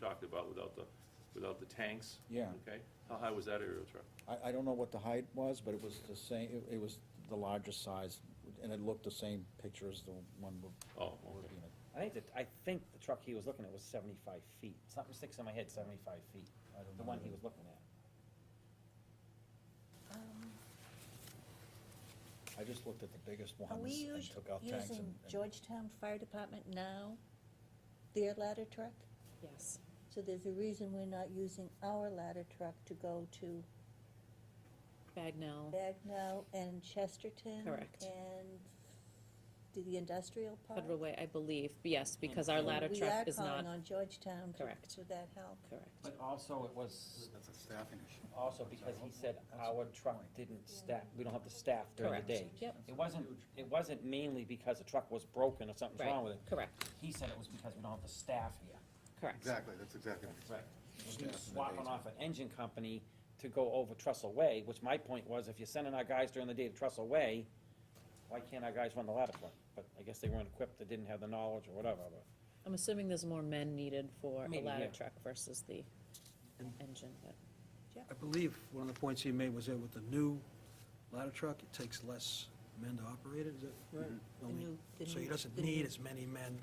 talked about without the, without the tanks. Yeah. Okay, how high was that aerial truck? I, I don't know what the height was, but it was the same, it, it was the largest size, and it looked the same picture as the one we're. Oh, we're okay. looking at. I think that, I think the truck he was looking at was seventy-five feet. Something sticks in my head, seventy-five feet, I don't the know one he either. was looking at. Um, I just looked at the biggest Are we ones and using, took out tanks and. using and- Georgetown Fire Department now, their ladder truck? Yes. So there's a reason we're not using our ladder truck to go to Bagnell, Bagnell and Chesterton? Correct. And to the industrial park? Federal Way, I believe, yes, because our ladder We truck are is not, calling on Georgetown Correct. to, to that help. correct. But also it was, That's a staffing issue. also because he said our truck didn't staff, we don't have the staff during the Correct. day. Yep, It wasn't, it wasn't mainly because the truck was broken or something's wrong with right, it. correct, He said it was because we don't have the staff here. correct. Exactly, that's exactly what Right. Staff in the Swapping days. off an engine company to go over Trestle Way, which my point was, if you're sending our guys during the day to Trestle Way, why can't our guys run the ladder truck? But I guess they weren't equipped, they didn't have the knowledge or whatever, but. I'm assuming there's more men needed for a Maybe, ladder yeah. truck versus the engine, but, it I is. I believe one of the points he made was that with the new ladder truck, it takes less men to operate it, is that right? Mm-hmm. The new- the So he new- doesn't the need new- as many men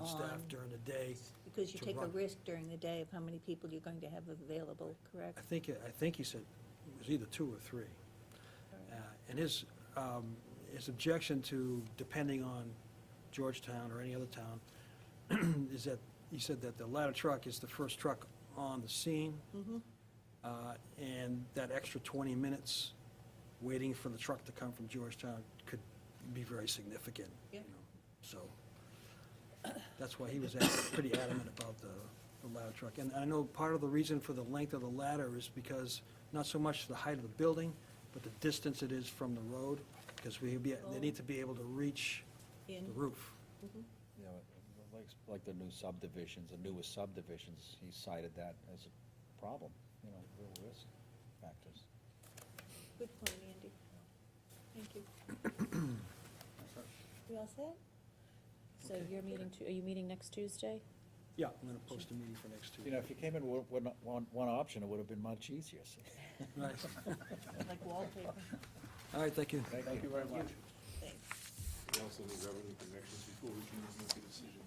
on staff On- during the day. Because you to take a run. risk during the day of how many people you're going to have available, correct? I think, I think he said it was either two or three. Uh, And his, um, his objection to depending on Georgetown or any other town is that, he said that the ladder truck is the first truck on the scene. Mm-hmm. Uh, And that extra 20 minutes waiting for the truck to come from Georgetown could be very significant. you Yeah. know. So that's why he was ad- pretty adamant about the the ladder truck. And I know part of the reason for the length of the ladder is because, not so much the height of the building, but the distance it is from the road, because we, be- they need to be able to reach the In- roof. You know, like, like the new subdivisions, the newest subdivisions, he cited that as a problem, you know, real risk factors. Good point, Andy. Thank you. You all set? so you're meeting, Tu- are you meeting next Tuesday? Yeah, I'm going to post a meeting for next You know, Tuesday. if you came in with, with one, one option, it would have been much easier. so. Right. Like wallpaper. All right, thank you. Thank you very much. Thanks. We also need revenue projections before we can make a decision.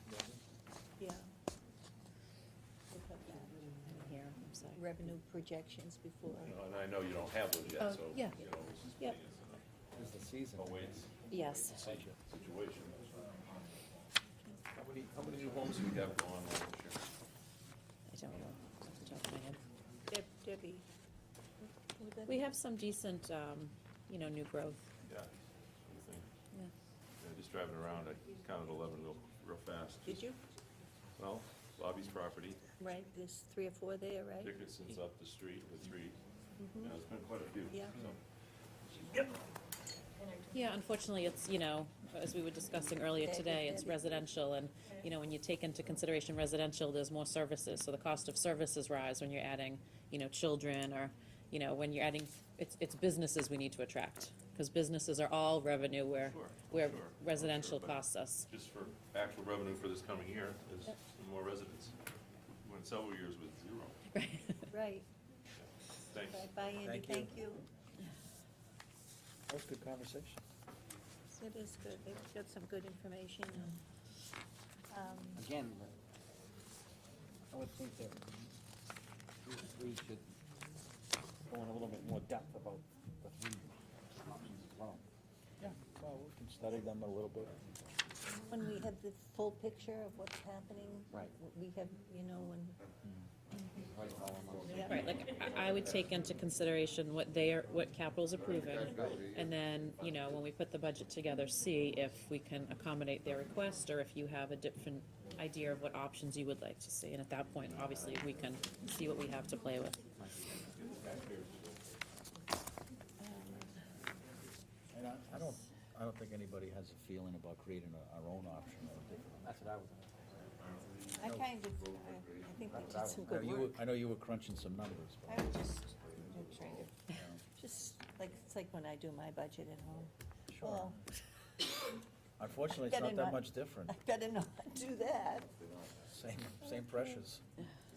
Yeah. We'll put that. I'm here, I'm sorry. Revenue projections before. And I know you don't have those Oh, yet, so, you yeah. know, this is Yep. It's the season. a wait Yes, situation. How many, how many new homes do we have going on this year? I don't know, off the top of my head. Deb- Debbie. would that We be- have some decent, um, you know, new growth, Yeah. I think. yeah. Yeah, Just driving around, I counted eleven real, real fast. Did you? Well, Bobby's property, Right, there's three or four there, right? Dickinson's up the street with three, you know, there's been quite a few. Yeah. so. Yeah, unfortunately, it's, you know, as we were discussing earlier today, it's residential, and, you know, when you take into consideration residential, there's more services, so the cost of services rise when you're adding, you know, children, or, you know, when you're adding, it's, it's businesses we need to attract, because businesses are all revenue where, Sure, where sure, residential sure, but- costs us. just for actual revenue for this coming year, is some more residents. Went several years with zero. Right. Thanks. Bye, Bye, Andy, Thank you. thank you. That was a good conversation. That is good, they've got some good information. Um, Again, I would think that we should go in a little bit more depth about the three options as well. Yeah, well, we can study them a little bit. When we have the full picture of what's happening. Right. We have, you know, when, yeah. Right, like, I, I would take into consideration what they are, what capital's approving, and then, you know, when we put the budget together, see if we can accommodate their request, or if you have a different idea of what options you would like to see, and at that point, obviously, we can see what we have to play with. Um, And I, I don't, I don't think anybody has a feeling about creating a- our own option. or a different- That's what I was. I kind of, I- I think they did some I know good you work. were- I know you were crunching some numbers, but. I was just, I'm trying to, just like, it's like when I do my budget at home. Sure. Unfortunately, it's Better not that not. much different. I better not do that. Same, same pressures.